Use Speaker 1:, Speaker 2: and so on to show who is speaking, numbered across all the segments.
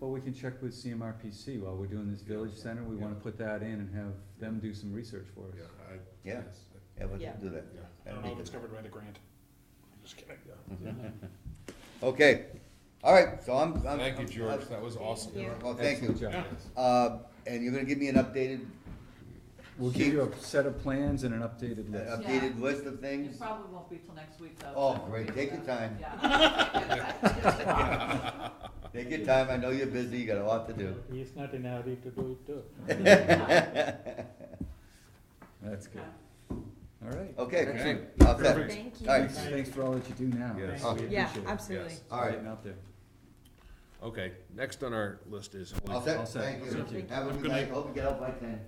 Speaker 1: Well, we can check with CMRPC while we're doing this village center, we wanna put that in and have them do some research for us.
Speaker 2: Yeah, I.
Speaker 3: Yeah.
Speaker 2: yes,
Speaker 3: Have us
Speaker 4: Yeah.
Speaker 3: do that.
Speaker 2: Yeah.
Speaker 5: I
Speaker 3: That'd
Speaker 5: don't know
Speaker 3: be
Speaker 5: if it's
Speaker 3: good.
Speaker 5: covered by the grant. Just kidding.
Speaker 3: Okay, all right, so I'm, I'm.
Speaker 2: Thank you,
Speaker 3: I'm-
Speaker 2: George, that was awesome.
Speaker 4: Thank you.
Speaker 3: Well, thank you.
Speaker 1: Excellent job.
Speaker 3: Uh, and you're gonna give me an updated,
Speaker 1: We'll give you a set of plans and an updated
Speaker 3: an
Speaker 1: list.
Speaker 3: updated list of
Speaker 6: It
Speaker 3: things?
Speaker 6: probably won't be till next week, though.
Speaker 3: Oh,
Speaker 6: so we'll
Speaker 3: great.
Speaker 6: figure
Speaker 3: Take your
Speaker 6: that out.
Speaker 3: time.
Speaker 6: Yeah.
Speaker 3: Take your time, I know you're busy, you got a lot to do.
Speaker 7: He's not in a hurry to do it too.
Speaker 1: That's good, all right.
Speaker 3: Okay, excellent. All set. All
Speaker 4: Thank
Speaker 3: right.
Speaker 4: you.
Speaker 1: Thanks, thanks for all that you do now.
Speaker 2: Yes.
Speaker 1: We
Speaker 4: Yeah,
Speaker 1: appreciate it.
Speaker 4: absolutely.
Speaker 2: Yes.
Speaker 3: All right.
Speaker 1: Getting out there.
Speaker 2: Okay, next on our list is.
Speaker 3: All
Speaker 1: All
Speaker 3: set,
Speaker 1: set.
Speaker 3: thank
Speaker 1: Thank
Speaker 3: you.
Speaker 1: you.
Speaker 3: Have a good night, hope you get out by ten.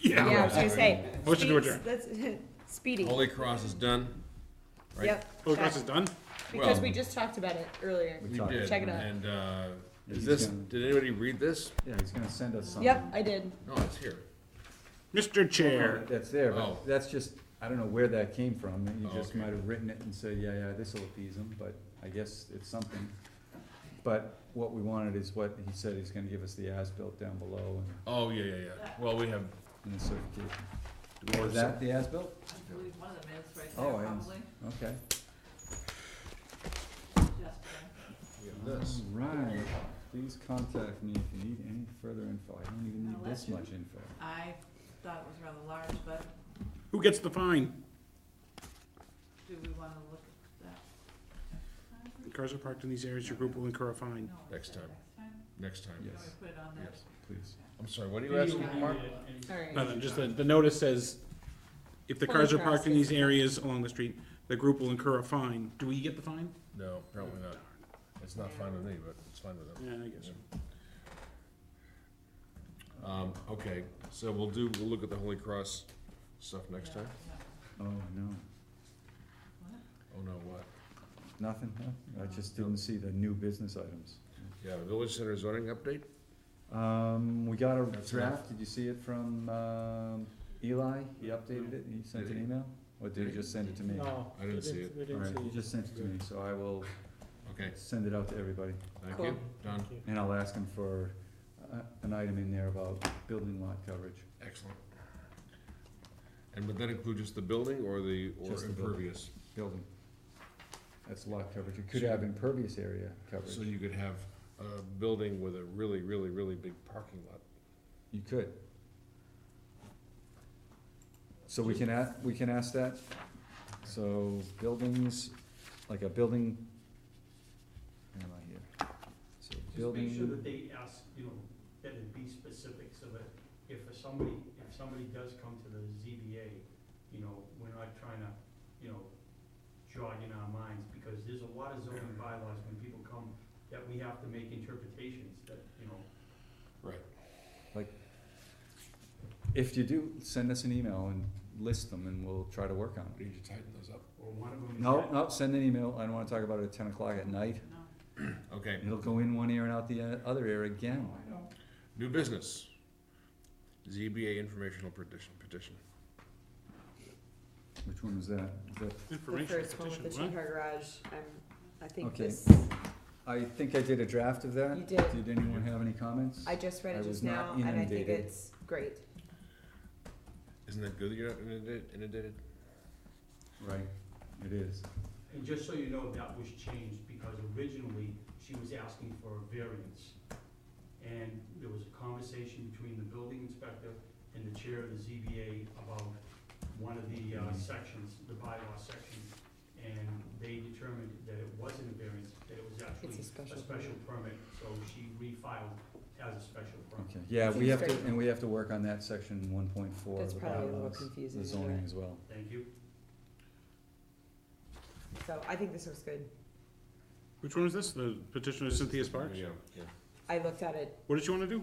Speaker 4: Yeah, I was gonna say.
Speaker 5: Motion to
Speaker 4: speeds-
Speaker 5: adjourn.
Speaker 4: that's- Speedy.
Speaker 2: Holy Cross is done. right?
Speaker 4: Yep.
Speaker 5: Holy
Speaker 4: check.
Speaker 5: Cross is done?
Speaker 4: Because
Speaker 2: Well-
Speaker 4: we just talked about it earlier.
Speaker 1: We
Speaker 2: We
Speaker 1: talked.
Speaker 2: did.
Speaker 4: Check it out.
Speaker 2: And, uh, is
Speaker 1: He's
Speaker 2: this,
Speaker 1: gonna-
Speaker 2: did anybody read this?
Speaker 1: Yeah, he's gonna send us something.
Speaker 4: Yep, I did.
Speaker 2: No, it's here.
Speaker 5: Mr. Chair.
Speaker 1: That's there,
Speaker 2: Oh.
Speaker 1: but that's just, I don't know where that came from, you
Speaker 2: Oh,
Speaker 1: just
Speaker 2: okay.
Speaker 1: might have written it and said, yeah, yeah, this'll appease him, but I guess it's something. But what we wanted is what he said, he's gonna give us the as-built down below and-
Speaker 2: Oh, yeah, yeah, yeah. Well, we have.
Speaker 1: and the certification.
Speaker 2: do we have
Speaker 1: Is that the as-built?
Speaker 6: I believe one of them is right
Speaker 1: Oh, I
Speaker 6: there,
Speaker 1: didn't-
Speaker 6: probably.
Speaker 1: Okay.
Speaker 6: Just, uh,
Speaker 2: some- we have This.
Speaker 1: Right, please contact me if you need any further info, I don't even
Speaker 6: I'll
Speaker 1: need
Speaker 6: let
Speaker 1: this
Speaker 6: you-
Speaker 1: much info.
Speaker 6: I thought it was rather large, but
Speaker 5: Who gets the fine?
Speaker 6: do we wanna look at that?
Speaker 5: Cars are parked in these areas, your group will incur a fine.
Speaker 6: No, we
Speaker 2: Next
Speaker 6: said
Speaker 2: time.
Speaker 6: Next time?
Speaker 2: Next time.
Speaker 6: Can
Speaker 1: Yes,
Speaker 6: we put it on there?
Speaker 2: Yes.
Speaker 1: please.
Speaker 2: I'm sorry, what are you asking, Mark?
Speaker 4: All right.
Speaker 5: No, no, just the, the notice says, if the cars are parked in these areas along the street, the group will incur a fine. Do we get the fine?
Speaker 2: No, apparently not. It's not fine with me, but it's fine with them.
Speaker 5: Yeah, I guess so.
Speaker 2: Um, okay, so we'll do, we'll look at the Holy Cross stuff next time.
Speaker 6: Yeah, yeah.
Speaker 1: Oh, no,
Speaker 2: Oh, no, what?
Speaker 1: nothing, huh? I just didn't see the new business items.
Speaker 2: Yeah, Village Center zoning update?
Speaker 1: Um, we got a
Speaker 2: That's
Speaker 1: draft, did you see it from, um, Eli? He updated it, he sent an
Speaker 2: Did he?
Speaker 1: email? Or did he just send it to me?
Speaker 7: No.
Speaker 2: I didn't
Speaker 7: we
Speaker 2: see it.
Speaker 7: We didn't
Speaker 1: Alright,
Speaker 7: see
Speaker 1: he
Speaker 7: it.
Speaker 1: just sent it to me, so I will
Speaker 2: Okay,
Speaker 1: send it out to everybody,
Speaker 2: thank
Speaker 4: Cool.
Speaker 2: you. Done.
Speaker 7: Thank you.
Speaker 1: and I'll ask him for, uh, an item in there about building lot coverage.
Speaker 2: Excellent. And would that include just the building or the, or
Speaker 1: Just the building.
Speaker 2: impervious?
Speaker 1: Building. That's lot coverage, it could have impervious area
Speaker 2: So
Speaker 1: coverage,
Speaker 2: you could have a building with a really, really, really big parking lot.
Speaker 1: you could. So we can ask, we can ask that, so buildings, like a building. Where am I here? So
Speaker 8: Just
Speaker 1: building.
Speaker 8: make sure that they ask, you know, that it be specific, so that if for somebody, if somebody does come to the ZBA, you know, we're not trying to, you know, jog in our minds, because there's a lot of zoning bylaws when people come, that we have to make interpretations, that, you know,
Speaker 2: Right.
Speaker 1: If you do, send us an email and list them and we'll try to work on
Speaker 2: We
Speaker 1: it.
Speaker 2: Need to tighten those up.
Speaker 8: or one of them is.
Speaker 1: No,
Speaker 8: that-
Speaker 1: no, send an email, I don't wanna talk about it at ten o'clock at night,
Speaker 6: No.
Speaker 2: Okay,
Speaker 1: it'll go in one ear and out the uh, other ear again.
Speaker 8: I know.
Speaker 2: new business. ZBA informational petition, petition.
Speaker 1: Which one was that? Is that?
Speaker 4: The
Speaker 5: Information
Speaker 4: first one with
Speaker 5: petition,
Speaker 4: the
Speaker 5: what?
Speaker 4: two-car garage, i I think
Speaker 1: Okay.
Speaker 4: this,
Speaker 1: I think I did a draft of that.
Speaker 4: You did.
Speaker 1: Did anyone have any comments?
Speaker 4: I just read
Speaker 1: I
Speaker 4: it
Speaker 1: was
Speaker 4: just now
Speaker 1: not
Speaker 4: and I think
Speaker 1: inundated.
Speaker 4: it's great.
Speaker 2: Isn't that good that you're not inundated, inundated?
Speaker 1: Right, it is.
Speaker 8: And just so you know, that was changed, because originally, she was asking for a variance. And there was a conversation between the building inspector and the chair of the ZBA about one of the uh, sections, the bylaw section. And they determined that it wasn't a variance, that it was
Speaker 4: It's
Speaker 8: actually
Speaker 4: a
Speaker 8: a
Speaker 4: special.
Speaker 8: special permit, so she refiled as a special permit.
Speaker 1: Okay, yeah, we have to,
Speaker 4: Straight.
Speaker 1: and we have to work on that section one point four of
Speaker 4: That's
Speaker 1: the
Speaker 4: probably a little
Speaker 1: bylaws,
Speaker 4: confusing,
Speaker 1: the
Speaker 4: isn't
Speaker 1: zoning
Speaker 4: it?
Speaker 1: as well.
Speaker 8: Thank you.
Speaker 4: So I think this was good.
Speaker 5: Which one is this? The petition of Cynthia Sparks?
Speaker 2: Yeah, yeah.
Speaker 4: I looked at it.
Speaker 5: What did you wanna do?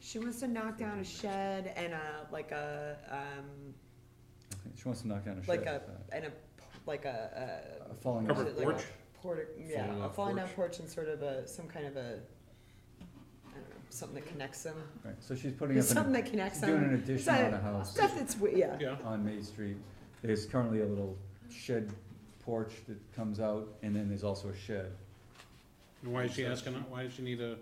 Speaker 4: She wants to knock down a shed and a, like a, um,
Speaker 1: Okay, She wants to knock down a shed.
Speaker 4: like a,
Speaker 1: uh,
Speaker 4: and a, like a,
Speaker 1: A
Speaker 4: uh,
Speaker 1: falling.
Speaker 4: Covered
Speaker 5: Covered
Speaker 4: like
Speaker 5: porch?
Speaker 4: porta,
Speaker 2: Falling
Speaker 4: yeah, a
Speaker 2: off
Speaker 4: falling down
Speaker 2: porch.
Speaker 4: porch and sort of a, some kind of a, I don't know, something that connects them.
Speaker 1: Right, so she's putting up,
Speaker 4: Something
Speaker 1: an-
Speaker 4: that connects
Speaker 1: she's doing an
Speaker 4: them.
Speaker 1: addition
Speaker 4: not-
Speaker 1: on a house
Speaker 4: Stuff that's, we- yeah.
Speaker 5: Yeah.
Speaker 1: on Main Street. There's currently a little shed porch that comes out, and then there's also a shed.
Speaker 5: And why is she asking, why does she need a